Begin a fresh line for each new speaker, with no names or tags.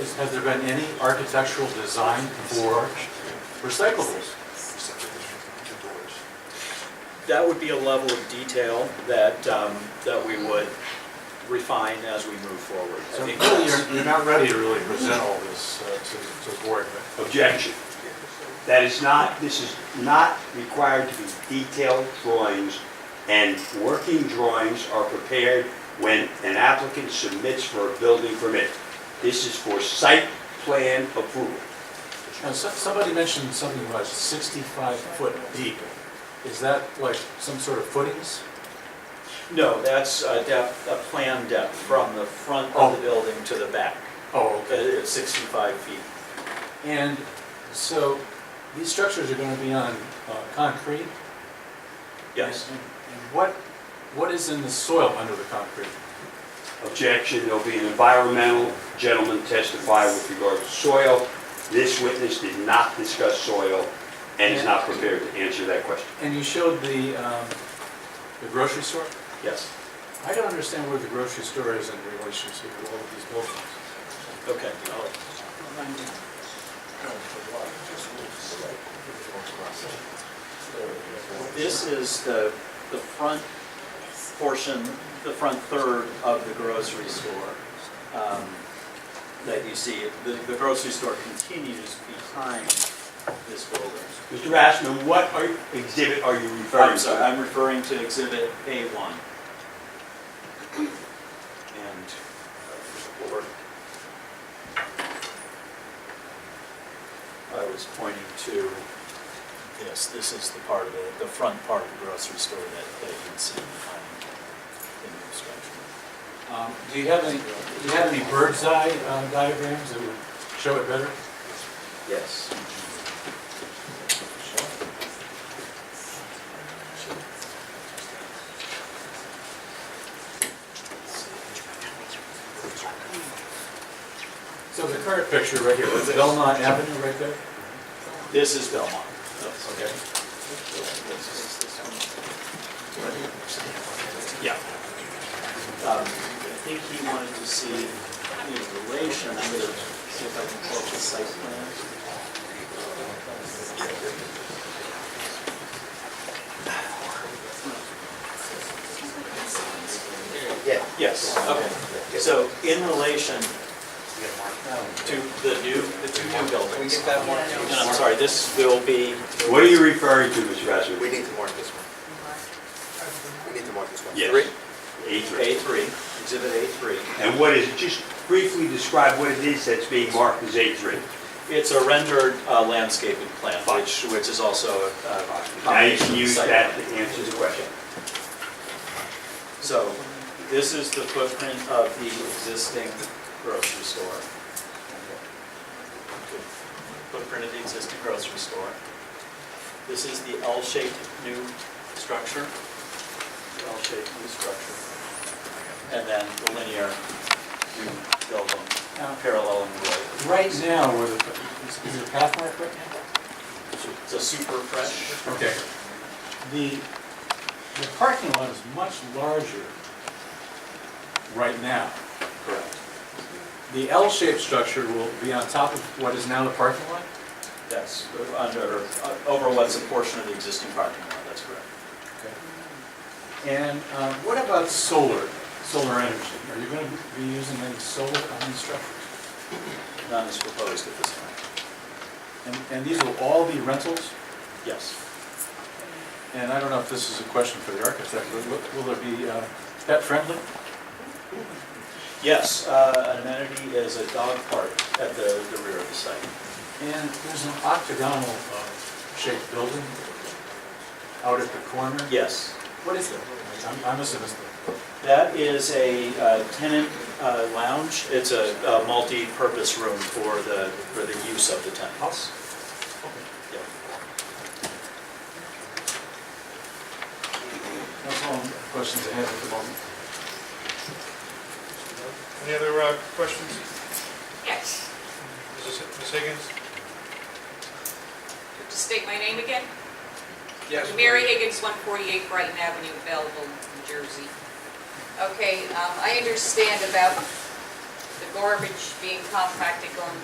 is, has there been any architectural design for recyclables?
That would be a level of detail that, um, that we would refine as we move forward. I
So
think
really,
that's-
you're, you're not ready to really present all this uh, to, to the board, but
Objection. That is not, this is not required to be detailed drawings, and working drawings are prepared when an applicant submits for a building permit. This is for site plan approval.
Now, so- somebody mentioned something about 65 foot deep. Is that like some sort of footings?
No, that's a depth, a plan depth from the front of the building to the back,
Oh,
uh, it's 65 feet.
And so these structures are going to be on uh, concrete?
Yes,
And and what, what is in the soil under the concrete?
Objection, there'll be an environmental gentleman testify with regard to soil. This witness did not discuss soil and is not prepared to answer that question.
And you showed the, um, the grocery store?
yes,
I don't understand where the grocery store is in relation to all of these buildings.
okay. I'll- This is the, the front portion, the front third of the grocery store um, that you see. The the grocery store continues behind this building.
Mr. Rassman, what are- exhibit are you referring to?
I'm sorry, I'm referring to Exhibit A1. And, uh, or, I was pointing to this, this is the part of the, the front part of the grocery store that, that you can see behind the new structure.
Um, Do you have any, do you have any bird's eye uh, diagrams that would show it better?
Yes.
So the current picture right here, is Belmont Avenue right there?
This is Belmont.
Okay.
Yeah. Um, I think he wanted to see in relation, I'm gonna see if I can pull up the site plan.
Yeah.
Yes, okay. So in relation to the new, the two new buildings. And I'm sorry, this will be,
What are you referring to, Mr. Rassman?
We need to mark this one. We need to mark this one.
Yes.
Three?
A3.
A3, Exhibit A3.
And what is, just briefly describe what it is that's being marked as A3.
It's a rendered uh, landscaping plan,
Fine.
which, which is also a- a.
Now you
combination
can use
site
that
plan.
to answer the question.
So this is the footprint of the existing grocery store. Footprint of the existing grocery store. This is the L-shaped new structure. L-shaped new structure. And then the linear new building, parallel and related.
Right now, where the, is- is there a path mark right now?
It's a super fresh.
Okay. The, the parking lot is much larger right now.
Correct.
The L-shaped structure will be on top of what is now the parking lot?
Yes, under, uh, over what's a portion of the existing parking lot, that's correct.
And uh, what about solar, solar energy? Are you going to be using any solar on these structures?
None is proposed at this time.
And, and these will all be rentals?
Yes.
And I don't know if this is a question for the architect, but will- will it be uh, pet friendly?
Yes, uh, an amenity is a dog park at the, the rear of the site.
And there's an octagonal uh, shaped building out at the corner?
Yes,
What is that? I'm- I must have missed that.
that is a uh, tenant uh, lounge. It's a a multi-purpose room for the, for the use of the tenants. Yeah.
That's all the questions I have at the moment.
Any other uh, questions?
Yes.
Mrs. Ms. Higgins?
Just state my name again.
Yes.
Mary Higgins, 148 Brighton Avenue, Belleville, New Jersey. Okay, um, I understand about the garbage being compacted going